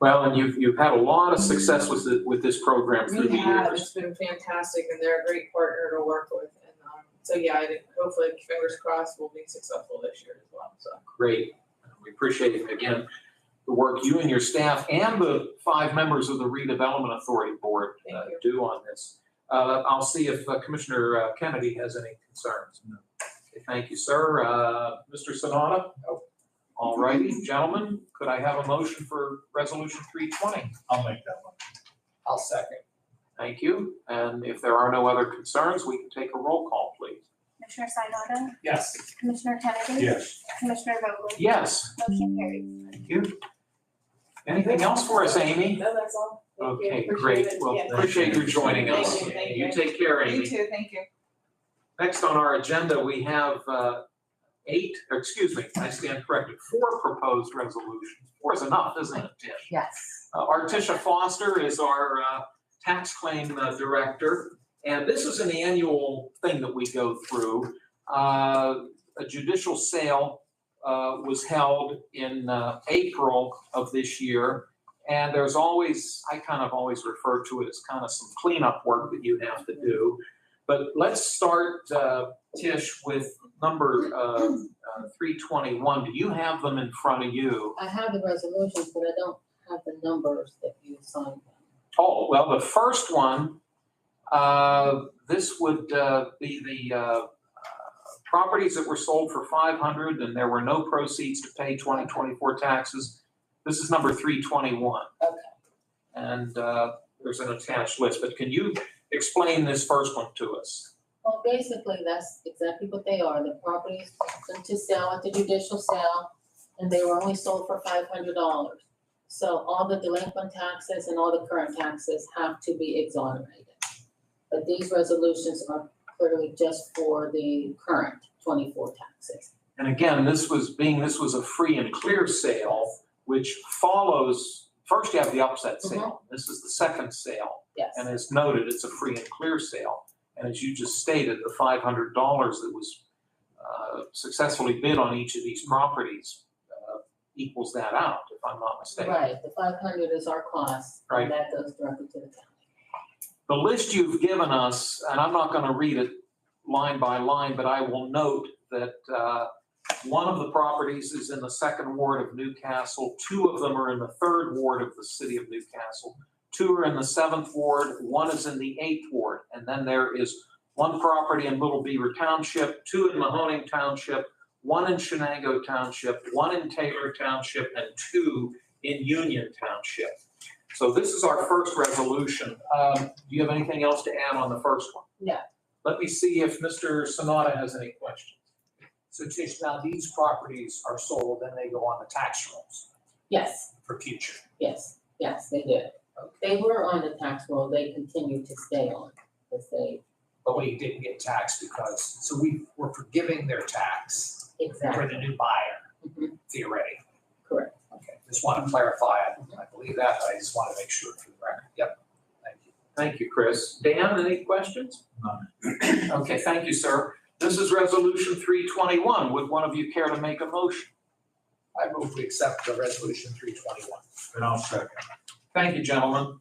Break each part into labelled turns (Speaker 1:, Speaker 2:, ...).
Speaker 1: Well, and you've, you've had a lot of success with, the- with this program through the
Speaker 2: We have,
Speaker 1: years.
Speaker 2: it's been fantastic and they're a great partner to work with and, um, so yeah, I think hopefully, fingers crossed, we'll be successful this year as well, so.
Speaker 1: Great. We appreciate, again, the work you and your staff and the five members of the redevelopment authority board uh,
Speaker 2: Thank
Speaker 1: do on this. Uh, I'll see if uh, Commissioner uh, Kennedy has any concerns.
Speaker 3: No.
Speaker 1: Okay, Thank you, sir. Uh, Mr. Sanada? All righty, gentlemen, could I have a motion for Resolution 320?
Speaker 3: I'll make that one.
Speaker 4: I'll second.
Speaker 1: Thank you. And if there are no other concerns, we can take a roll call, please.
Speaker 5: Commissioner Sinata,
Speaker 4: Yes.
Speaker 5: Commissioner Kennedy?
Speaker 3: Yes.
Speaker 5: Commissioner Vogler?
Speaker 1: Yes,
Speaker 5: Motion carries.
Speaker 1: thank you. Anything else for us, Amy?
Speaker 2: No, that's all. Thank you.
Speaker 1: Okay,
Speaker 2: Appreciate
Speaker 1: great.
Speaker 2: it.
Speaker 1: Well,
Speaker 2: Yeah.
Speaker 1: appreciate you joining us.
Speaker 2: Thank you, thank you.
Speaker 1: take care, Amy.
Speaker 2: You too, thank you.
Speaker 1: Next on our agenda, we have uh, eight, or excuse me, I stand corrected, four proposed resolutions. Four is enough, isn't it, Tish?
Speaker 6: Yes.
Speaker 1: Uh, Artisha Foster is our uh, tax claim uh, director, and this is an annual thing that we go through. Uh, A judicial sale uh, was held in uh, April of this year, and there's always, I kind of always refer to it as kind of some cleanup work that you have to do. But let's start, uh, Tish, with number uh, uh, 321. Do you have them in front of you?
Speaker 6: I have the resolutions, but I don't have the numbers that you assigned them.
Speaker 1: Oh, well, the first one, uh, this would uh, be the uh, properties that were sold for 500 and there were no proceeds to pay 2024 taxes. This is number 321.
Speaker 6: Okay.
Speaker 1: And uh, there's an attached list, but can you explain this first one to us?
Speaker 6: Well, basically, that's exactly what they are. The properties went to sell at the judicial sale, and they were only sold for five hundred dollars. So all the delinquent taxes and all the current taxes have to be exonerated. But these resolutions are clearly just for the current twenty-four taxes.
Speaker 1: And again, this was, being this was a free and clear sale, which follows, first you have the upset sale. This is the second sale.
Speaker 6: Yes.
Speaker 1: And as noted, it's a free and clear sale. And as you just stated, the five hundred dollars that was uh, successfully bid on each of these properties uh, equals that out, if I'm not mistaken.
Speaker 6: Right, the five hundred is our cost,
Speaker 1: Right.
Speaker 6: and that goes directly to the county.
Speaker 1: The list you've given us, and I'm not going to read it line by line, but I will note that uh, one of the properties is in the second ward of Newcastle, two of them are in the third ward of the city of Newcastle, two are in the seventh ward, one is in the eighth ward, and then there is one property in Little Beaver Township, two in Mahoning Township, one in Shenango Township, one in Taylor Township, and two in Union Township. So this is our first resolution. Um, Do you have anything else to add on the first one?
Speaker 6: No.
Speaker 1: Let me see if Mr. Sonata has any questions.
Speaker 4: So Tish, now these properties are sold and they go on the tax rolls
Speaker 6: Yes,
Speaker 4: for future.
Speaker 6: yes, yes, they did. They were on the tax roll, they continue to stay on, because they,
Speaker 4: But we didn't get taxed because, so we were forgiving their tax for
Speaker 6: exactly,
Speaker 4: the new buyer
Speaker 6: Mhm.
Speaker 4: theoretically.
Speaker 6: correct.
Speaker 4: Okay, just want to clarify. I I believe that, but I just want to make sure for the record. Yep. Thank you.
Speaker 1: Thank you, Chris. Dan, any questions? Okay, thank you, sir. This is Resolution 321. Would one of you care to make a motion?
Speaker 4: I move we accept the resolution three twenty-one.
Speaker 3: And I'll second.
Speaker 1: Thank you, gentlemen.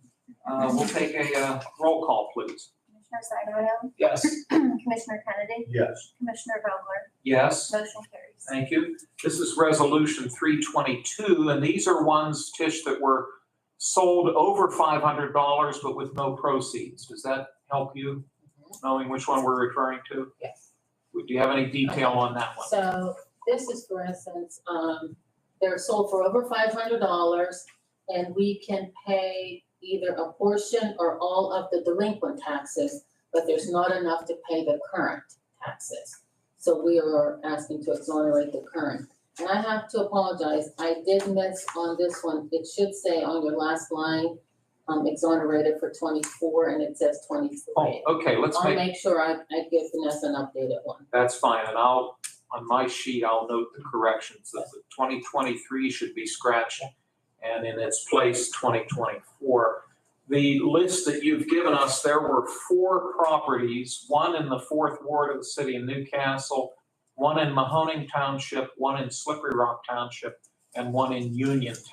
Speaker 1: Uh, We'll take a uh, roll call, please.
Speaker 5: Commissioner Sinata,
Speaker 4: Yes.
Speaker 5: Commissioner Kennedy,
Speaker 3: Yes.
Speaker 5: Commissioner Vogler?
Speaker 1: Yes?
Speaker 5: Motion carries.
Speaker 1: Thank you. This is Resolution 322, and these are ones, Tish, that were sold over $500 but with no proceeds. Does that help you, knowing which one we're referring to?
Speaker 6: Yes.
Speaker 1: Do you have any detail on that one?
Speaker 6: So this is, for instance, um, they're sold for over five hundred dollars, and we can pay either a portion or all of the delinquent taxes, but there's not enough to pay the current taxes. So we are asking to exonerate the current. And I have to apologize, I did miss on this one, it should say on your last line, um, exonerated for twenty-four, and it says
Speaker 1: Oh,
Speaker 6: twenty-three.
Speaker 1: okay, let's
Speaker 6: I'll
Speaker 1: make,
Speaker 6: make sure I, I give Vanessa an updated one.
Speaker 1: that's fine, and I'll, on my sheet, I'll note the corrections. that The 2023 should be scratched, and in its place, 2024. The list that you've given us, there were four properties, one in the fourth ward of the city of Newcastle, one in Mahoning Township, one in Slippery Rock Township, and one in Union Township.